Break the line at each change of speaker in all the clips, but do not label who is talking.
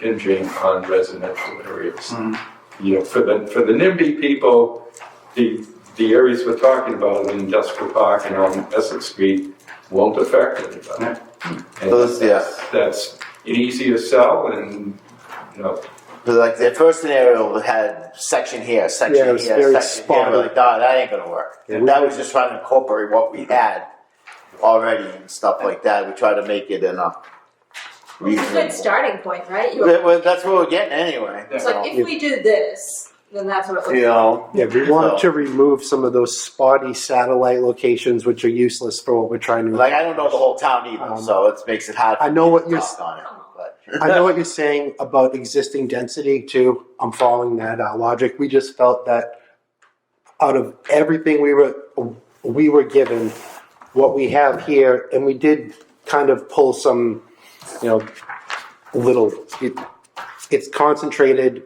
impinging on residential areas.
Mm.
You know, for the, for the NIMBY people, the, the areas we're talking about, in industrial park and on Essex Street, won't affect
Yeah.
anybody. And
Those, yeah.
That's an easier sell and, you know,
But like the first scenario had section here, section
Yeah, it
here,
was very
section here.
spotty.
We're like, nah, that ain't gonna work.
Yeah,
And
we-
that was just trying to incorporate what we had already and stuff like that. We try to make it in a
It's a good
reasonable.
starting point, right? You-
That- well, That's what we're getting anyway.
It's
so,
like, if we do this, then that's what it looks
you know,
Yeah, we wanted to remove some of those spotty satellite locations which are useless for what we're trying to.
like I don't know the whole town either,
Um,
so it makes it hard.
I know what you're
talk on it, but
I know what you're saying about existing density too. I'm following that uh, logic. We just felt that out of everything we were we were given, what we have here, and we did kind of pull some, you know, little. It, it's concentrated.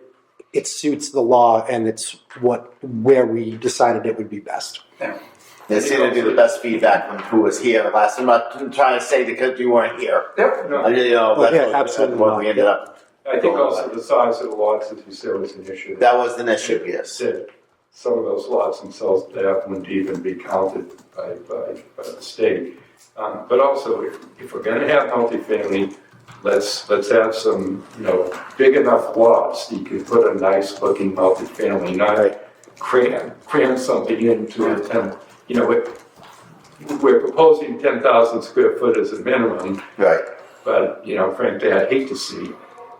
It suits the law, and it's what where we decided it would be best.
they seem to do the best feedback from who was here last. I'm not trying to say because you weren't here.
yeah,
I,
no,
you know,
Oh,
that's
yeah,
what- that's
absolutely
what
not.
we ended up.
I think also the size of the lots, as you said, was an issue.
That was an issue. Yes.
said some of those lots themselves, they wouldn't even be counted by, by, by the state. Um, but also, if, if we're gonna have multifamily, let's, let's have some, you know, big enough lots, that you can put a nice looking multifamily, not cram, cram something into a ten, you know, it- we're proposing ten thousand square foot as a minimum,
Right.
but, you know, frankly, I'd hate to see,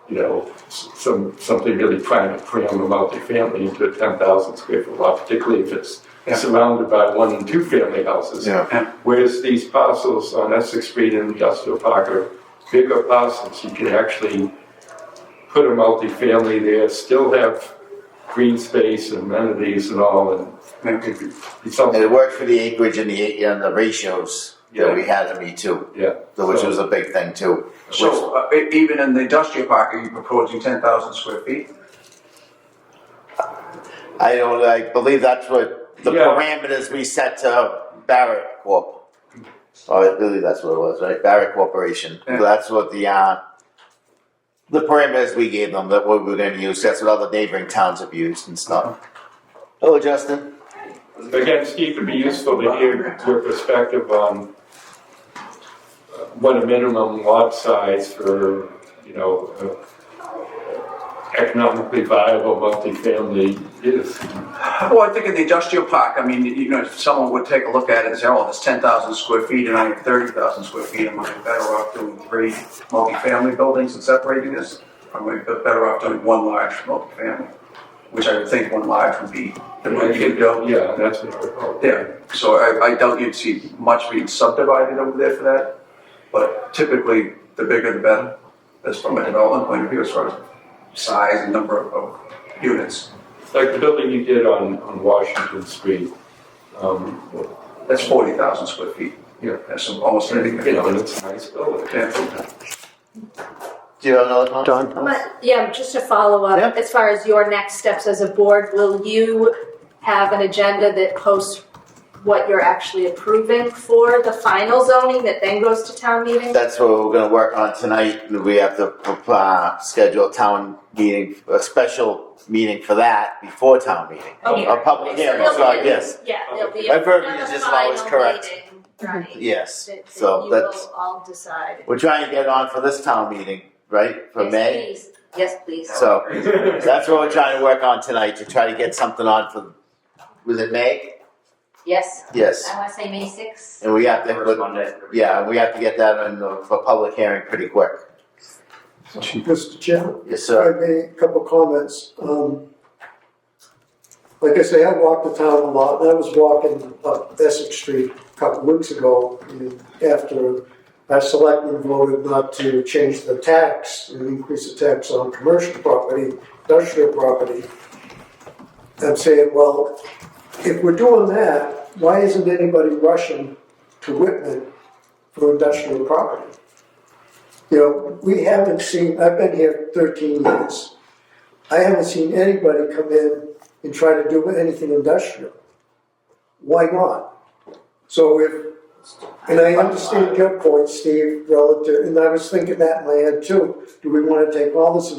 you know, s- some, something really trying to cram a multifamily into a ten thousand square foot lot, particularly if it's
Yeah.
surrounded by one and two family houses.
Yeah.
Yeah.
Whereas these parcels on Essex Street and Industrial Park are bigger parcels, you can actually put a multifamily there, still have green space and amenities and all, and
Maybe.
it's something,
And it worked for the acreage and the and the ratios
Yeah.
that we had to meet too,
yeah.
which
So-
was a big thing too.
So, uh, e- even in the industrial park, are you proposing ten thousand square feet?
I don't. I believe that's what the
Yeah.
parameters we set to Barrett Corp. Oh, I believe that's what it was, right? Barrett Corporation.
Yeah.
That's what the uh, the parameters we gave them that what we were going to use. That's what other neighboring towns have used and stuff. Hello, Justin.
Again, Steve, it'd be useful to hear your perspective on uh, what a minimum lot size for, you know, uh, economically viable multifamily is.
Well, I think in the industrial park, I mean, you know, if someone would take a look at it and say, oh, it's ten thousand square feet and I have thirty thousand square feet, am I better off doing three multifamily buildings and separating this? Or am I better off doing one large multifamily? Which I would think one large would be the way you could go.
Yeah, that's what I recall.
Yeah, so I, I doubt you'd see much being subdivided over there for that, but typically, the bigger the better, as from a development point of view, as far as size and number of, of units.
Like the building you did on, on Washington Street. um,
That's forty thousand square feet.
Yeah.
That's almost anything.
You know, and it's a nice building.
Yeah.
Do you have another comment?
Don,
But, yeah, just to follow up,
Yeah.
as far as your next steps as a board, will you have an agenda that posts what you're actually approving for the final zoning that then goes to town meeting?
That's what we're gonna work on tonight, we have to, uh, schedule a town meeting, a special meeting for that before town meeting.
Okay.
A public
So
hearing,
there'll
so
be a-
yes,
Yeah, there'll be.
My
a
verbiage
another
isn't always
final
correct. Mm-hmm.
meeting, Right.
yes,
That, that
so
you
that's,
will all decide.
we're trying to get on for this town meeting, right, for
Yes,
May?
please. Yes, please.
So, that's what we're trying to work on tonight, to try to get something on for, was it May?
Yes,
Yes,
I want to say May sixth.
and we have to, yeah, we have to get that on, the- for public hearing pretty quick,
Mr. Chairman,
yes,
if I
sir.
may, a couple of comments. Um, Like I say, I walk the town a lot, and I was walking up Essex Street a couple of weeks ago, and after our selectmen voted not to change the tax, and increase the tax on commercial property, industrial property, I'm saying, well, if we're doing that, why isn't anybody rushing to Whitman for industrial property? You know, we haven't seen, I've been here thirteen years. I haven't seen anybody come in and try to do anything industrial. Why not? So if, and I understand your point, Steve, relative, and I was thinking that in my head too. Do we wanna take all this